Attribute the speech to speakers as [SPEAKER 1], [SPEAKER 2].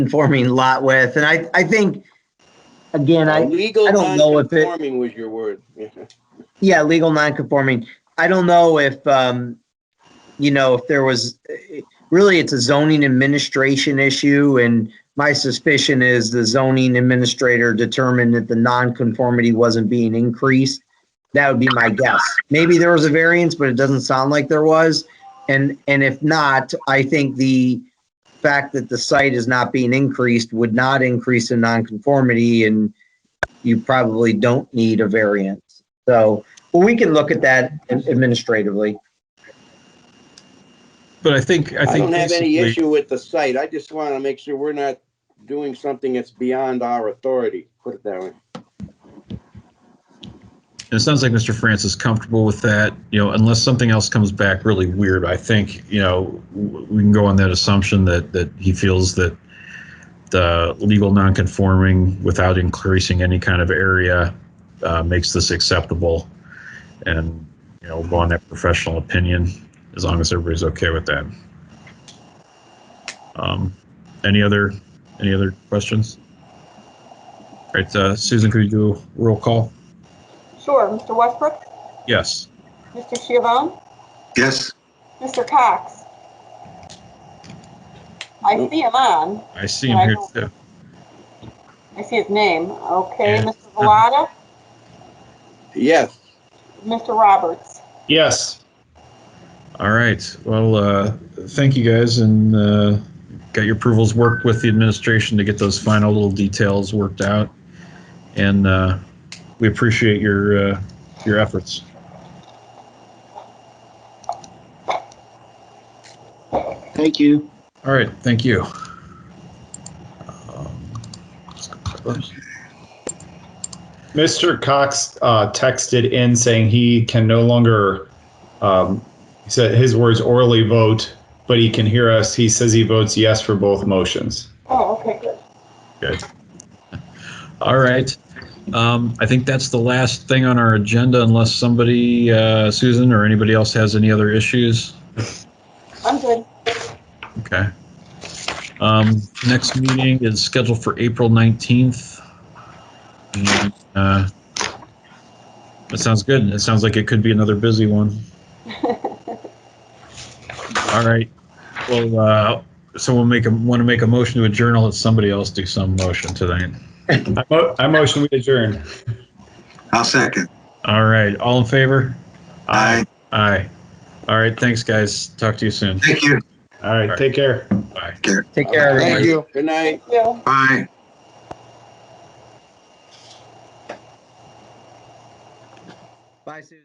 [SPEAKER 1] conforming lot width, and I, I think, again, I,
[SPEAKER 2] Legal
[SPEAKER 1] I don't know if it-
[SPEAKER 2] non-conforming was your word.
[SPEAKER 1] Yeah, legal non-conforming. I don't know if, um, you know, if there was, really, it's a zoning administration issue, and my suspicion is the zoning administrator determined that the non-conformity wasn't being increased. That would be my guess. Maybe there was a variance, but it doesn't sound like there was. And, and if not, I think the fact that the site is not being increased would not increase the non-conformity, and you probably don't need a variance. So, well, we can look at that administratively.
[SPEAKER 3] But I think, I
[SPEAKER 2] I
[SPEAKER 3] think
[SPEAKER 2] don't have any
[SPEAKER 3] basically,
[SPEAKER 2] issue with the site. I just want to make sure we're not doing something that's beyond our authority, put it that way.
[SPEAKER 3] and it sounds like Mr. France is comfortable with that, you know, unless something else comes back really weird. I think, you know, w- we can go on that assumption that, that he feels that the legal nonconforming without increasing any kind of area uh, makes this acceptable. And, you know, go on that professional opinion, as long as everybody's okay with that. Um, Any other, any other questions? All right, uh, Susan, could you do a roll call?
[SPEAKER 4] Sure, Mr. Westbrook,
[SPEAKER 3] Yes.
[SPEAKER 4] Mr. Chivon,
[SPEAKER 5] Yes,
[SPEAKER 4] Mr. Cox. I see him on.
[SPEAKER 3] I see him here too.
[SPEAKER 4] I see his name. Okay,
[SPEAKER 3] Yeah.
[SPEAKER 4] Mr. Valada,
[SPEAKER 2] Yes,
[SPEAKER 4] Mr. Roberts.
[SPEAKER 3] Yes. All right. Well, uh, thank you guys and uh, got your approvals worked with the administration to get those final little details worked out. And uh, we appreciate your, uh, your efforts.
[SPEAKER 6] Thank you.
[SPEAKER 3] All right. Thank you.
[SPEAKER 7] Mr. Cox uh, texted in saying he can no longer, um, he said his words orally vote, but he can hear us. He says he votes yes for both motions.
[SPEAKER 4] Oh, okay, good.
[SPEAKER 3] All right. Um, I think that's the last thing on our agenda unless somebody, uh, Susan or anybody else has any other issues.
[SPEAKER 4] I'm good.
[SPEAKER 3] Okay. Um, next meeting is scheduled for April 19th. And, uh, That sounds good. It sounds like it could be another busy one. All right. Well, uh, someone make a, want to make a motion to adjourn. I'll let somebody else do some motion tonight.
[SPEAKER 7] I mo- I motion we adjourn.
[SPEAKER 5] I'll second.
[SPEAKER 3] All right. All in favor?
[SPEAKER 5] Aye.
[SPEAKER 3] Aye. All right. Thanks, guys. Talk to you soon.
[SPEAKER 5] Thank you.
[SPEAKER 7] All right, take care.
[SPEAKER 3] Bye.
[SPEAKER 1] Take care, everybody.
[SPEAKER 2] thank you. Good night.
[SPEAKER 4] Thank you.
[SPEAKER 5] Bye.
[SPEAKER 1] Bye, Susan.